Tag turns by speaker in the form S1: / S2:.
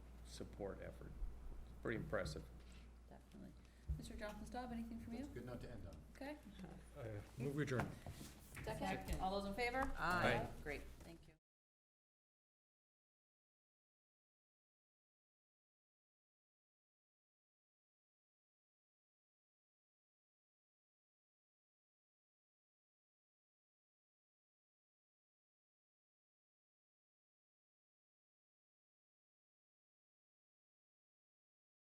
S1: support effort. Pretty impressive.
S2: Definitely. Mr. Jonathan Staub, anything from you?
S3: It's good not to end on.
S2: Okay.
S4: Move adjourned.
S2: Second. All those in favor?
S1: Aye. Aye.
S2: Great.